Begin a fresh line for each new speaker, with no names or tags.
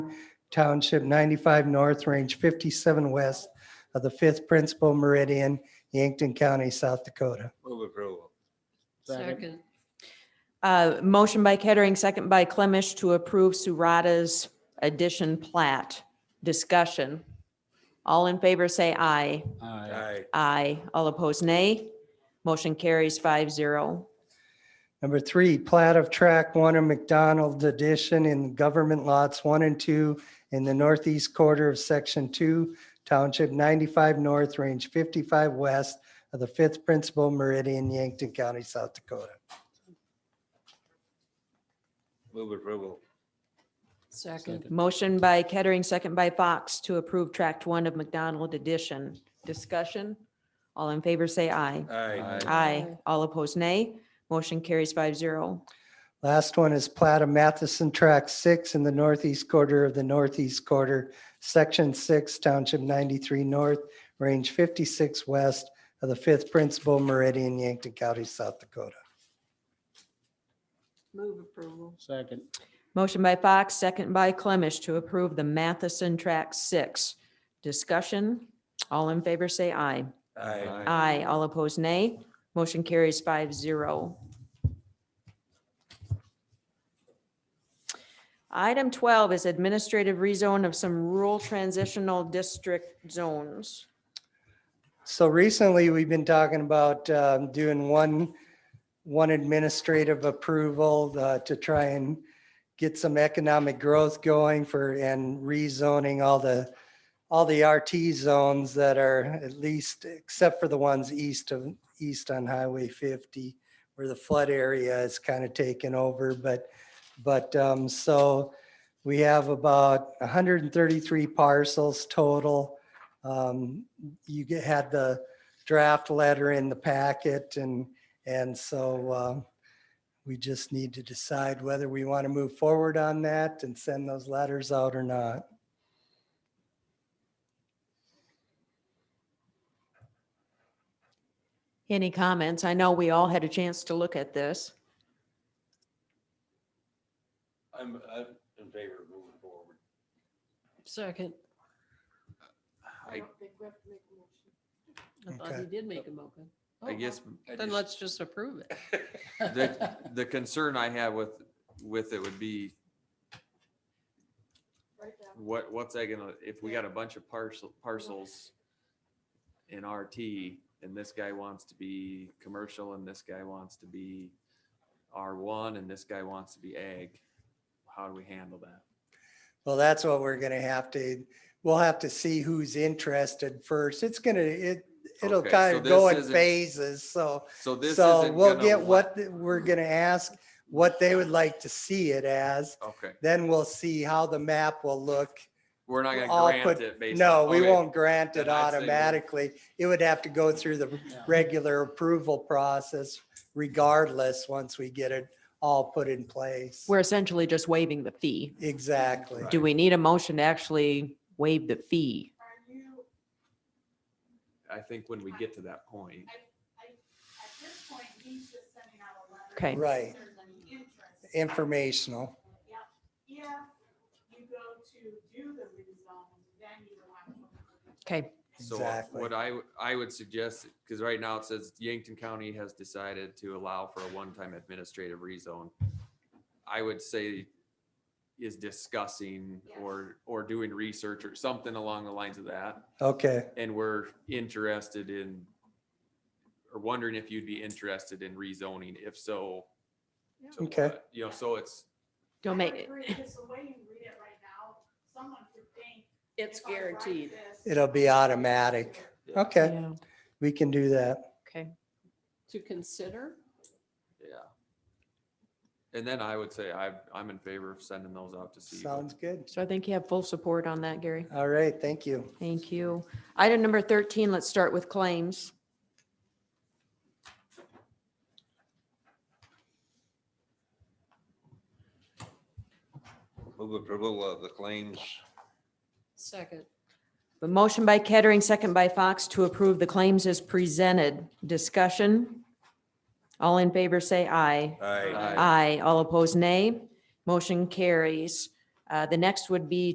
Township, 95 North, Range 57 West of the 5th Principal Meridian, Yankton County, South Dakota.
Move approval.
Second.
Uh, Motion by Kettering, second by Clemish to approve Surata's addition plat. Discussion. All in favor, say aye.
Aye.
Aye.
Aye. All opposed, nay. Motion carries five zero.
Number three, plat of track one of McDonald Addition in government lots one and two in the northeast quarter of section two, township ninety-five north, range fifty-five west of the fifth principal meridian, Yankton County, South Dakota.
Move approval.
Second.
Motion by Kettering, second by Fox to approve tract one of McDonald addition. Discussion. All in favor, say aye.
Aye.
Aye.
Aye.
All opposed, nay. Motion carries five zero.
Last one is plat of Matheson Track Six in the northeast quarter of the northeast quarter, section six, township ninety-three north, range fifty-six west of the fifth principal meridian, Yankton County, South Dakota.
Move approval.
Second.
Motion by Fox, second by Clemish to approve the Matheson Track Six. Discussion. All in favor, say aye.
Aye.
Aye. All opposed, nay. Motion carries five zero. Item twelve is administrative rezone of some rural transitional district zones.
So recently, we've been talking about um, doing one, one administrative approval uh, to try and get some economic growth going for, and rezoning all the, all the RT zones that are at least, except for the ones east of, east on Highway 50, where the flood area is kind of taken over, but, but, um, so we have about 133 parcels total. Um, you get, had the draft letter in the packet and, and so um, we just need to decide whether we want to move forward on that and send those letters out or not.
Any comments? I know we all had a chance to look at this.
I'm, I'm in favor of moving forward.
Second.
I,
I thought
Okay.
he did make a motion. Oh,
I guess. I
Then
just-
let's just approve it.
The, the concern I have with, with it would be what, what's that gonna, if we got a bunch of parcel, parcels in RT and this guy wants to be commercial and this guy wants to be R one and this guy wants to be ag, how do we handle that?
Well, that's what we're gonna have to, we'll have to see who's interested first. It's gonna, it, it'll
Okay, so
kind of go
this
in
isn't-
phases, so.
So this
So
isn't
we'll
gonna
get
wa-
what, the- we're gonna ask, what they would like to see it as.
Okay,
Then we'll see how the map will look.
we're not
I'll
gonna grant
put-
it based.
No,
on-
we
okay,
won't grant it
Then I'd say we-
automatically. It would have to go through the regular approval process regardless, once we get it all put in place.
We're essentially just waiving the fee.
Exactly.
Do we need a motion to actually waive the fee?
Are you,
I think when we get to that point,
at this point, he's just sending out a letter.
Okay.
Right.
If there's any interest.
Informational.
Yep. If you go to do the rezone, then you will have to.
Okay.
So
Exactly.
what I, w- I would suggest, because right now it says Yankton County has decided to allow for a one-time administrative rezone. I would say is discussing or, or doing research or something along the lines of that.
Okay,
And we're interested in, or wondering if you'd be interested in rezoning. If so, to
Okay.
what? You know, so it's,
Don't
I
make
would
it.
agree, Because the way you read it right now, someone could think.
It's
if I write
guaranteed.
this-
it'll be automatic.
Yeah.
Okay,
Yeah,
we can do that.
Okay.
To consider?
yeah. And then I would say I, I'm in favor of sending those out to see. what-
Sounds good.
So I think you have full support on that, Gary.
All right, thank you.
Thank you. Item number 13, let's start with claims.
Move approval of the claims.
Second.
The motion by Kettering, second by Fox to approve the claims as presented. Discussion. All in favor, say aye.
Aye.
Aye.
Aye. All opposed, nay. Motion carries. Uh, The next would be